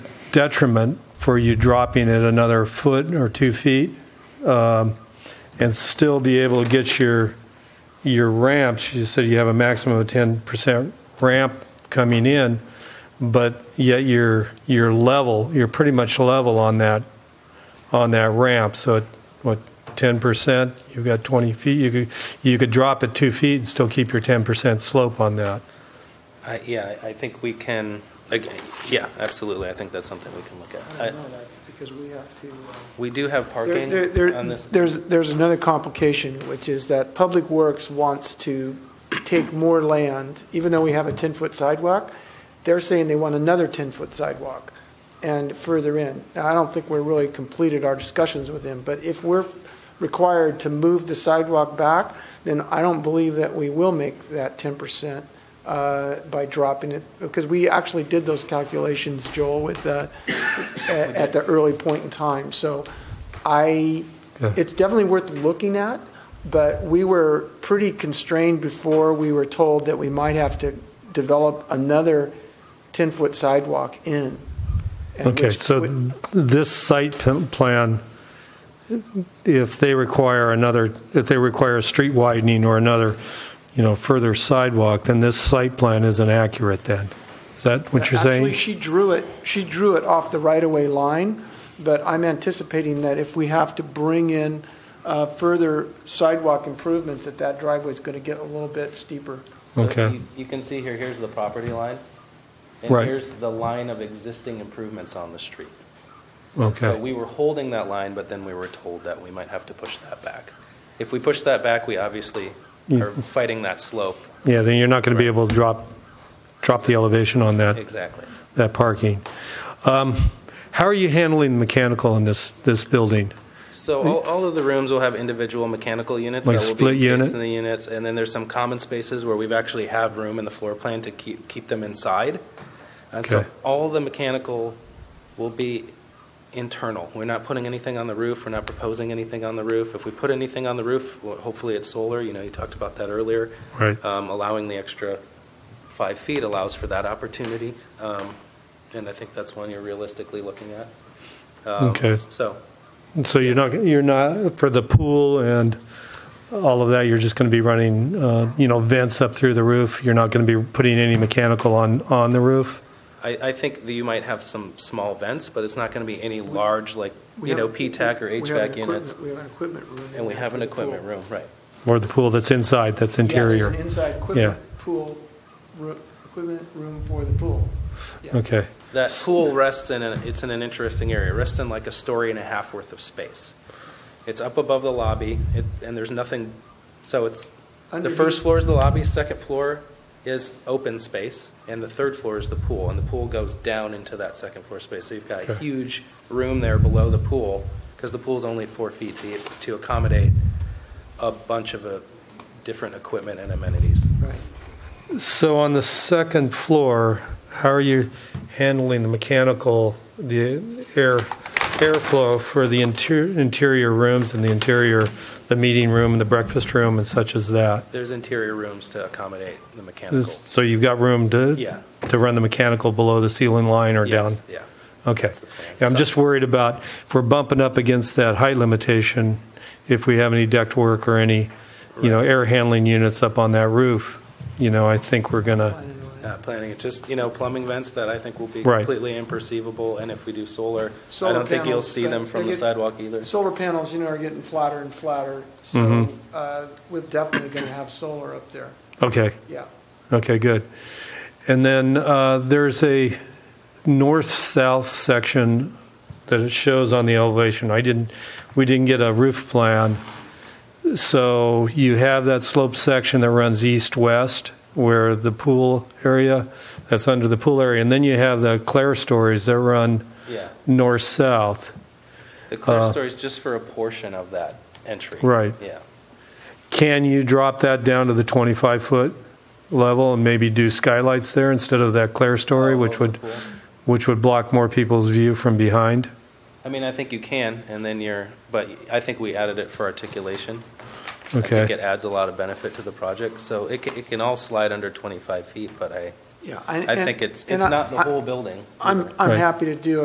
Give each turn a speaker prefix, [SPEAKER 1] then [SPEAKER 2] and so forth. [SPEAKER 1] detriment for you dropping it another foot or two feet um, and still be able to get your, your ramps. You said you have a maximum of 10% ramp coming in, but yet you're, you're level, you're pretty much level on that, on that ramp. So, it- what, 10%? You've got 20 feet. You could, you could drop it two feet and still keep your 10% slope on that.
[SPEAKER 2] I, yeah, I I think we can, like, yeah, absolutely, I think that's something we can look
[SPEAKER 3] I
[SPEAKER 2] at. I-
[SPEAKER 3] know that's because we have to. uh,
[SPEAKER 2] We do have
[SPEAKER 3] there-
[SPEAKER 2] parking
[SPEAKER 3] there- there-
[SPEAKER 2] on this.
[SPEAKER 3] There's, there's another complication, which is that Public Works wants to take more land, even though we have a 10-foot sidewalk, they're saying they want another 10-foot sidewalk and further in. Now, I don't think we're really completed our discussions with them, but if we're required to move the sidewalk back, then I don't believe that we will make that 10% uh, by dropping it, because we actually did those calculations, Joel, with, uh, at at the early point in time. So I,
[SPEAKER 1] Yeah.
[SPEAKER 3] it's definitely worth looking at, but we were pretty constrained before we were told that we might have to develop another 10-foot sidewalk in. and
[SPEAKER 1] Okay,
[SPEAKER 3] which-
[SPEAKER 1] so th- this site p- plan, if they require another, if they require a street widening or another, you know, further sidewalk, then this site plan isn't accurate then? Is that what you're saying?
[SPEAKER 3] Actually, she drew it, she drew it off the right-of-way line, but I'm anticipating that if we have to bring in uh, further sidewalk improvements, that that driveway's going to get a little bit steeper.
[SPEAKER 2] So
[SPEAKER 1] Okay.
[SPEAKER 2] you- You can see here, here's the property line.
[SPEAKER 1] Right.
[SPEAKER 2] And here's the line of existing improvements on the street. So
[SPEAKER 1] Okay,
[SPEAKER 2] we were holding that line, but then we were told that we might have to push that back. If we push that back, we obviously
[SPEAKER 1] Yeah.
[SPEAKER 2] are fighting that slope,
[SPEAKER 1] yeah, then you're not going to be able to drop, drop the elevation on that,
[SPEAKER 2] exactly.
[SPEAKER 1] that parking. Um, How are you handling mechanical in this, this building?
[SPEAKER 2] So all, all of the rooms will have individual mechanical units that
[SPEAKER 1] Like
[SPEAKER 2] will
[SPEAKER 1] split
[SPEAKER 2] be
[SPEAKER 1] unit?
[SPEAKER 2] encased in the units, and then there's some common spaces where we've actually have room in the floor plan to keep, keep them inside. And so
[SPEAKER 1] Okay.
[SPEAKER 2] all the mechanical will be internal. We're not putting anything on the roof, we're not proposing anything on the roof. If we put anything on the roof, well, hopefully it's solar, you know, you talked about that earlier.
[SPEAKER 1] Right.
[SPEAKER 2] Um, allowing the extra five feet allows for that opportunity, um, and I think that's one you're realistically looking at. Um,
[SPEAKER 1] Okay.
[SPEAKER 2] So,
[SPEAKER 1] So you're not, you're not, for the pool and all of that, you're just going to be running, uh, you know, vents up through the roof? You're not going to be putting any mechanical on, on the roof?
[SPEAKER 2] I, I think that you might have some small vents, but it's not going to be any large, like,
[SPEAKER 3] We
[SPEAKER 2] you know,
[SPEAKER 3] have-
[SPEAKER 2] P-TAC or
[SPEAKER 3] we have an
[SPEAKER 2] HVAC units.
[SPEAKER 3] equipment- We have an equipment room. in
[SPEAKER 2] And we
[SPEAKER 3] there
[SPEAKER 2] have
[SPEAKER 3] for
[SPEAKER 2] an
[SPEAKER 3] the pool.
[SPEAKER 2] equipment room, right.
[SPEAKER 1] Or the pool that's inside, that's interior?
[SPEAKER 3] Yes, an inside equipment pool, ro- equipment room for the pool. Yeah.
[SPEAKER 1] Okay,
[SPEAKER 2] That pool rests in, an it's in an interesting area, It rests in like a story and a half worth of space. It's up above the lobby, it- and there's nothing, so it's, the
[SPEAKER 3] Underneath-
[SPEAKER 2] first floor is the lobby, second floor is open space, and the third floor is the pool, and the pool goes down into that second floor space. So you've got a
[SPEAKER 1] Okay.
[SPEAKER 2] huge room there below the pool, because the pool's only four feet deep, to accommodate a bunch of uh, different equipment and amenities.
[SPEAKER 3] Right.
[SPEAKER 1] so on the second floor, how are you handling the mechanical, the air, airflow for the interior, interior rooms and the interior, the meeting room and the breakfast room and such as that?
[SPEAKER 2] There's interior rooms to accommodate the mechanical.
[SPEAKER 1] So you've got room to?
[SPEAKER 2] Yeah.
[SPEAKER 1] To run the mechanical below the ceiling line or down?
[SPEAKER 2] Yes, Yeah.
[SPEAKER 1] Okay.
[SPEAKER 2] the plan.
[SPEAKER 1] Yeah, I'm just worried about, if we're bumping up against that height limitation, if we have any duct work or any, you know, air handling units up on that roof, you know, I think we're going to,
[SPEAKER 2] Not Uh, planning it, just, you know, plumbing vents that I think will be
[SPEAKER 1] Right.
[SPEAKER 2] completely imperceivable, and if we do solar, I
[SPEAKER 3] Solar
[SPEAKER 2] don't think you'll
[SPEAKER 3] panels,
[SPEAKER 2] see them
[SPEAKER 3] they-
[SPEAKER 2] from
[SPEAKER 3] they
[SPEAKER 2] the
[SPEAKER 3] get-
[SPEAKER 2] sidewalk either.
[SPEAKER 3] Solar panels, you know, are getting flatter and flatter, so
[SPEAKER 1] Mm-hmm.
[SPEAKER 3] uh, we're definitely going to have solar up there,
[SPEAKER 1] okay,
[SPEAKER 3] yeah.
[SPEAKER 1] okay, good. And then uh, there's a north-south section that it shows on the elevation. I didn't, we didn't get a roof plan. So you have that slope section that runs east-west where the pool area, that's under the pool area, and then you have the Claire stories that run
[SPEAKER 2] Yeah.
[SPEAKER 1] north-south.
[SPEAKER 2] The clear
[SPEAKER 1] Uh,
[SPEAKER 2] story is just for a portion of that entry.
[SPEAKER 1] Right.
[SPEAKER 2] Yeah.
[SPEAKER 1] Can you drop that down to the 25-foot level and maybe do skylights there instead of that Claire story, which would, which would block more people's view from behind?
[SPEAKER 2] I mean, I think you can, and then you're, but I think we added it for articulation. I think it
[SPEAKER 1] Okay,
[SPEAKER 2] adds a lot of benefit to the project, so it can, it can all slide under 25 feet, but I,
[SPEAKER 3] Yeah.
[SPEAKER 2] I think it's, it's not the whole building.
[SPEAKER 3] I'm, I'm
[SPEAKER 1] Right.
[SPEAKER 3] happy to do